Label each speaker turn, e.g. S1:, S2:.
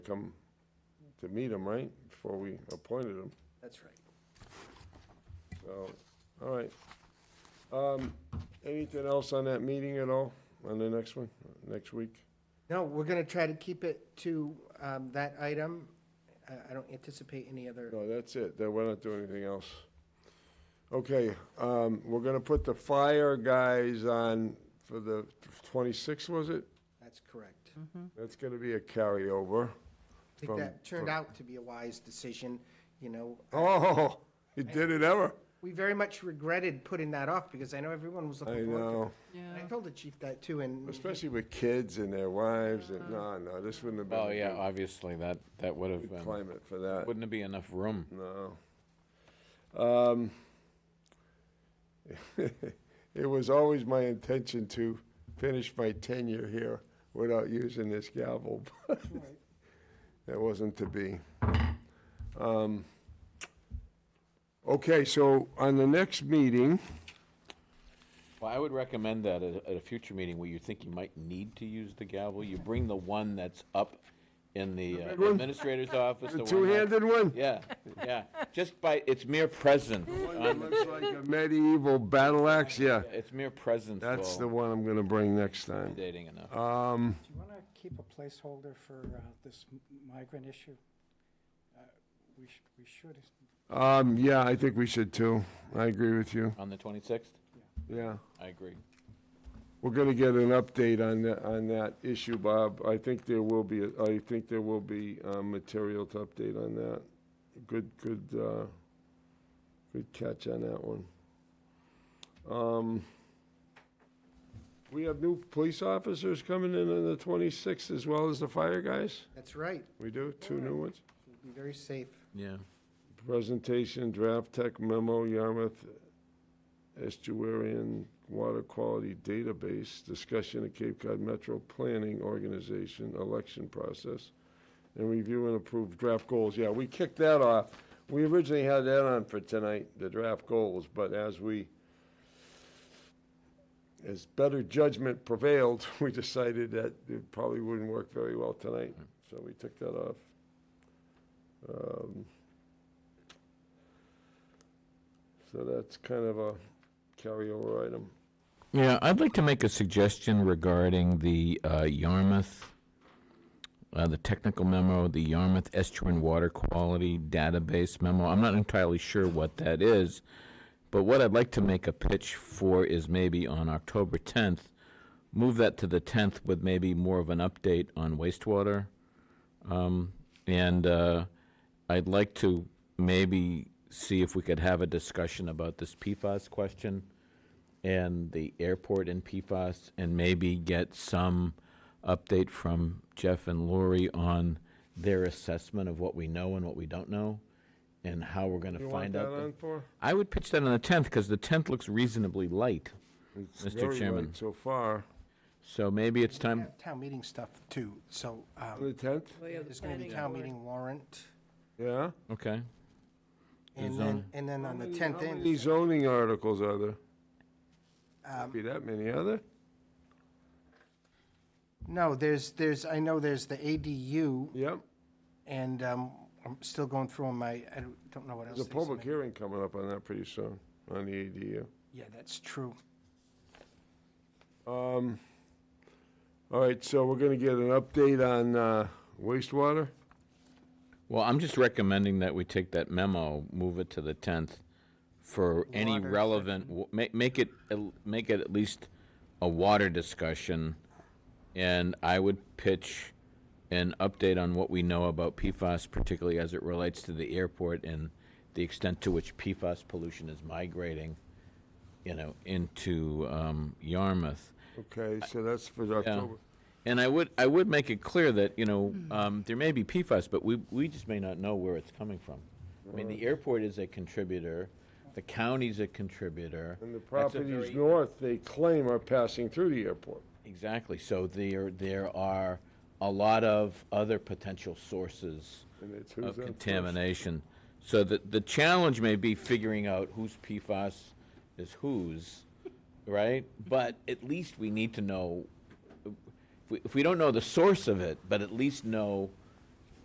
S1: come to meet him, right, before we appointed him,
S2: That's right.
S1: so, all right. Um, anything else on that meeting at all, on the next one, next week?
S2: No, we're gonna try to keep it to um, that item. I- I don't anticipate any other,
S1: No, that's it, then we're not doing anything else. Okay, um, we're gonna put the fire guys on for the twenty-sixth, was it?
S2: that's correct.
S1: That's gonna be a carryover.
S2: I think
S1: From-
S2: that turned
S1: from-
S2: out to be a wise decision, you know.
S1: Oh, you did it ever?
S2: We very much regretted putting that off because I know everyone was
S1: I
S2: looking forward to
S1: know,
S2: it. And I told the chief that too and.
S1: especially with kids and their wives, and, no,
S2: Uh-huh.
S1: no, this wouldn't have been.
S3: Oh,
S1: a
S3: yeah,
S1: good-
S3: obviously, that, that would have
S1: good
S3: been,
S1: climate for that.
S3: wouldn't be enough room.
S1: No. Um, it was always my intention to finish my tenure here without using this gavel. but That wasn't to be. Um, Okay, so on the next meeting,
S3: Well, I would recommend that at, a- at a future meeting where you think you might need to use the gavel, you bring the one that's up in the uh,
S1: one?
S3: administrator's office.
S1: the
S3: one that-
S1: two-handed one?
S3: Yeah, yeah, just by, it's mere presence.
S1: It looks like a medieval battle axe, yeah.
S3: It's mere presence
S1: That's the
S3: will
S1: one I'm gonna bring next time.
S3: intimidating enough.
S1: Um,
S4: Do you want to keep a placeholder for uh, this m- migrant issue? Uh, We should, we should,
S1: um, yeah, I think we should too. I agree with you,
S3: On the 26th?
S1: yeah.
S3: I agree.
S1: We're gonna get an update on that, on that issue, Bob. I think there will be, a- I think there will be, uh material to update on that. Good, good, uh, good catch on that one. Um, we have new police officers coming in on the twenty-sixth as well as the fire guys?
S2: That's right.
S1: We do, two new ones?
S2: It'll Be very safe.
S3: Yeah.
S1: Presentation, draft tech memo, Yarmouth Estuarian Water Quality Database, discussion of Cape Cod Metro Planning Organization election process, and review and approve draft goals. Yeah, we kicked that off. We originally had that on for tonight, the draft goals, but as we, as better judgment prevailed, we decided that it probably wouldn't work very well tonight, so we took that off. Um, So that's kind of a carryover item.
S3: Yeah, I'd like to make a suggestion regarding the uh, Yarmouth, uh, the technical memo, the Yarmouth Estuarine Water Quality Database memo. I'm not entirely sure what that is, but what I'd like to make a pitch for is maybe on October 10th, move that to the 10th with maybe more of an update on wastewater. Um, And uh, I'd like to maybe see if we could have a discussion about this PFAS question and the airport in PFAS, and maybe get some update from Jeff and Lori on their assessment of what we know and what we don't know, and how we're going to
S1: You want
S3: find
S1: that
S3: out. the-
S1: on for?
S3: I would pitch that on the 10th, because the 10th looks reasonably light,
S1: It's
S3: Mr.
S1: very
S3: Chairman.
S1: light So far,
S3: so maybe it's
S2: We
S3: time,
S2: have Town meeting stuff too, so um,
S1: on the tenth,
S2: there's gonna be town meeting warrant.
S1: yeah?
S3: okay.
S2: And
S3: Is
S2: then,
S3: on-
S2: and then on the tenth
S1: How
S2: end.
S1: many zoning articles are there?
S2: um,
S1: Be that many, are there?
S2: No, there's, there's, I know there's the ADU
S1: Yep,
S2: and um, I'm still going through my, I don't- don't know what else.
S1: there's a
S2: they
S1: public
S2: submitted.
S1: hearing coming up on that pretty soon, on the E ADU.
S2: Yeah, that's true.
S1: Um, all right, so we're gonna get an update on, uh, wastewater?
S3: Well, I'm just recommending that we take that memo, move it to the 10th for any
S2: Water
S3: relevant, w- make, make it, el- make it at least a water discussion. And I would pitch an update on what we know about PFAS, particularly as it relates to the airport and the extent to which PFAS pollution is migrating, you know, into um, Yarmouth.
S1: Okay, so that's for
S3: Yeah.
S1: October.
S3: And I would, I would make it clear that, you know, um, there may be PFAS, but we, we just may not know where it's coming from. I mean, the airport is a contributor, the county's a contributor.
S1: And the
S3: That's a
S1: properties
S3: very-
S1: north, they claim are passing through the airport.
S3: Exactly, so there, there are a lot of other potential sources
S1: And it's who's
S3: of
S1: on first.
S3: contamination. So the, the challenge may be figuring out whose PFAS is whose, right? But at least we need to know, if we, if we don't know the source of it, but at least know